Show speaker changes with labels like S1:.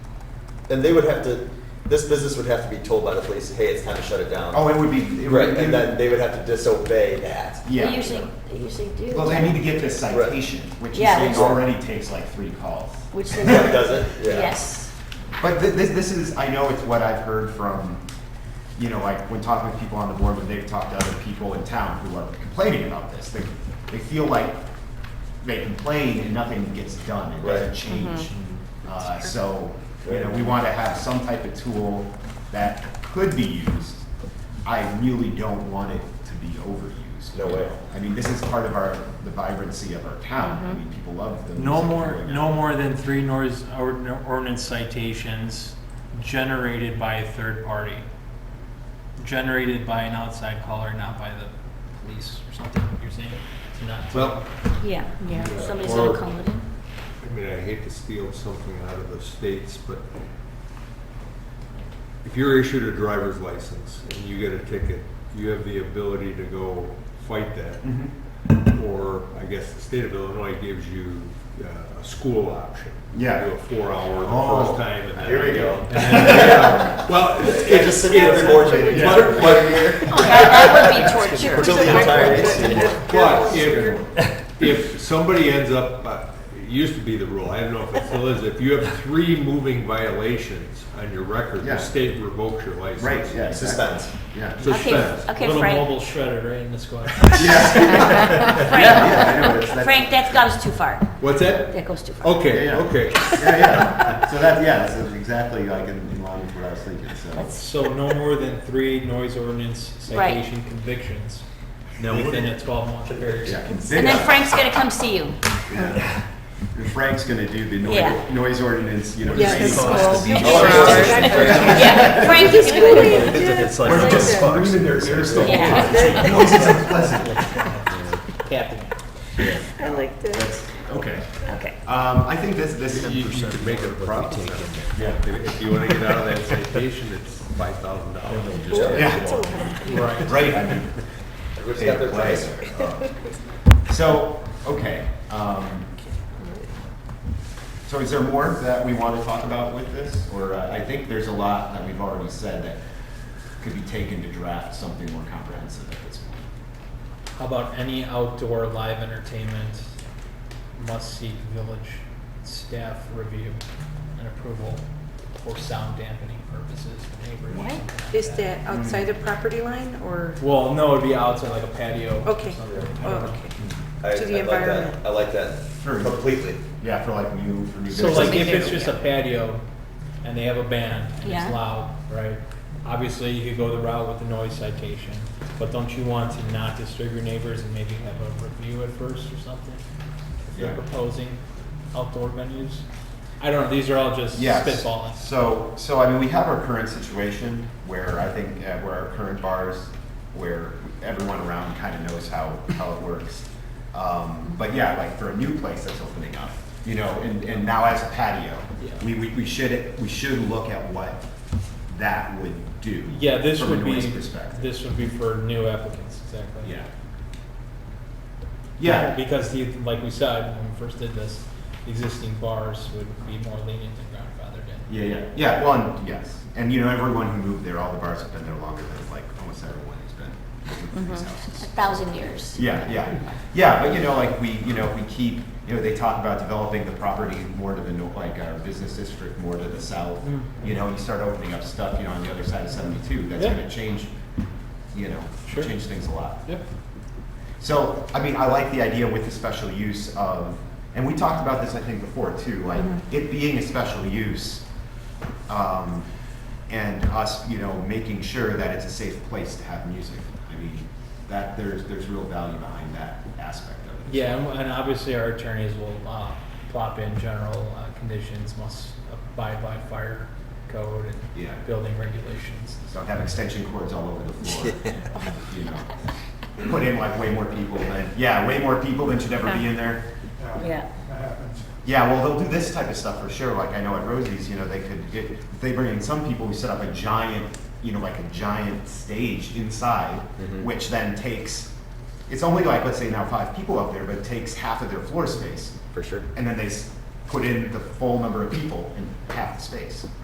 S1: then they would have to, this business would have to be told by the police, hey, it's time to shut it down.
S2: Oh, it would be. it would-
S1: Right, and then they would have to disobey that.
S2: Yeah.
S3: They usually, they usually do.
S2: Well, they need to get this
S1: Right.
S2: citation, which you
S3: Yeah,
S2: say
S3: that's-
S2: already takes like three calls.
S3: Which they.
S1: Yeah, does it? Yeah.
S3: Yes.
S2: But thi- this, this is, I know it's what I've heard from, you know, like when talking with people on the board, when they've talked to other people in town who are complaining about this, they, they feel like they complain and nothing gets done, it doesn't
S1: Right.
S2: change. Uh, so, you know,
S1: Right.
S2: we want to have some type of tool that could be used. I really don't want it to be overused.
S1: No
S2: you
S1: way.
S2: know? I mean, this is part of our, the vibrancy of our town, I mean, people love the.
S4: No
S2: music
S4: more,
S2: going on.
S4: no more than three noise or- ordinance citations generated by a third party. Generated by an outside caller, not by the police or something, you're saying? To not-
S5: Well,
S3: Yeah.
S1: Yeah.
S3: Somebody's
S5: Or-
S3: gonna call it in.
S5: I mean, I hate to steal something out of the states, but if you're issued a driver's license and you get a ticket, you have the ability to go fight that.
S2: Mhm.
S4: Mm-hmm.
S5: Or I guess the state of Illinois gives you uh, a school option.
S2: Yeah.
S5: You do a four-hour
S2: Oh,
S5: the first time. and then-
S2: here we go.
S5: And then- yeah. Well, it's.
S1: Yeah, just sit there and watch it.
S5: Yeah.
S1: But-
S3: Oh, that, that would be torture.
S1: Until the entire agency.
S5: But if, if somebody ends up, uh, it used to be the rule, I don't know if it still is, if you have three moving violations on your record,
S2: Yeah.
S5: the state revokes your license.
S2: Right, yeah, exactly.
S1: Suspense.
S2: Yeah.
S5: Suspends.
S3: Okay,
S4: Little
S3: Frank.
S4: mobile shredder right in the squad.
S3: Frank,
S2: Yeah, I know, it's- that's-
S3: Frank, that goes too far.
S5: What's that?
S3: That goes too far.
S5: Okay,
S2: Yeah, yeah.
S5: okay.
S2: Yeah, yeah. So that, yeah, that's exactly like in, in line with what I was thinking, so.
S3: That's-
S4: So no more than three noise ordinance citation convictions within a twelve-month period.
S2: yeah.
S3: And then Frank's gonna come see you.
S2: Yeah. And Frank's gonna do the
S3: Yeah.
S2: noise, noise ordinance, you know.
S6: Yeah,
S2: the
S6: it's
S2: same-
S6: cool.
S2: the-
S1: Oh, yeah.
S3: Yeah, Frank is doing it.
S7: It's like
S2: We're
S7: those
S2: just
S7: sparks.
S2: screaming their ears off.
S3: Yeah.
S2: Noise is unpleasant.
S4: Captain.
S6: I like that.
S2: Okay.
S3: Okay.
S2: Um, I think this, this.
S5: You you can make it a problem.
S2: Yeah.
S5: If you want to get out of that citation, it's five thousand dollars.
S2: Yeah,
S4: Right.
S2: right, I mean.
S1: Everybody's got their price.
S2: So, okay, um, so is there more that we want to talk about with this? Or uh, I think there's a lot that we've already said that could be taken to draft something more comprehensive at this point.
S4: How about any outdoor live entertainment must seek village staff review and approval for sound dampening purposes, neighbors,
S3: What?
S4: something like
S6: Is that outside the property line or,
S4: Well, no, it'd be outside like a patio. or
S6: Okay.
S4: something.
S6: oh, okay.
S1: I,
S6: To the
S1: I like that.
S6: environment.
S1: I like that
S2: Sure.
S1: completely.
S2: Yeah, for like new, for new.
S4: So like if it's
S2: businesses.
S4: just a patio and they have a band and
S3: Yeah.
S4: it's loud, right? Obviously, you could go the route with the noise citation, but don't you want to not disturb your neighbors and maybe have a review at first or something? If you're
S2: Yeah.
S4: proposing outdoor venues? I don't know, these are all just
S2: Yes.
S4: spitballing.
S2: So, so I mean, we have our current situation where I think, uh, where our current bars, where everyone around kind of knows how, how it works. Um, but yeah, like for a new place that's opening up, you know, and, and now as a patio,
S4: Yeah.
S2: we, we, we should, we should look at what that would do.
S4: Yeah, this would
S2: From a
S4: be,
S2: noise perspective.
S4: this would be for new applicants, exactly.
S2: Yeah. Yeah,
S4: Because the, like we said, when we first did this, existing bars would be more lenient than grandfathered in.
S2: Yeah, yeah, yeah. Well, and yes, and you know, everyone who moved there, all the bars have been there longer than like almost everyone has been. in these
S3: A
S4: Mm-hmm.
S2: houses.
S3: thousand years.
S2: Yeah, yeah, yeah. But you know, like we, you know, we keep, you know, they talk about developing the property more to the north, like our business district more to the south.
S4: Mm.
S2: You know, and you start opening up stuff, you know, on the other side of seventy-two. That's
S4: Yeah.
S2: going to change, you know,
S4: Sure.
S2: change things a lot.
S4: Yep.
S2: So, I mean, I like the idea with the special use of, and we talked about this, I think, before too, like it being a special use. Um, and us, you know, making sure that it's a safe place to have music. I mean, that there's, there's real value behind that aspect of it.
S4: Yeah, and- and obviously our attorneys will uh, plop in general uh, conditions, must abide by fire code
S2: Yeah.
S4: and building regulations.
S2: Don't have extension cords all over the floor, you know. Put in like way more people than, yeah, way more people than should ever be in there.
S3: Yeah.
S2: Yeah, well, they'll do this type of stuff for sure. Like I know at Rosie's, you know, they could get, they bring in some people who set up a giant, you know, like a giant stage inside,
S1: Mm-hmm.
S2: which then takes, it's only like, let's say now five people up there, but it takes half of their floor space.
S1: For sure.
S2: And then they s- put in the full number of people in half the space.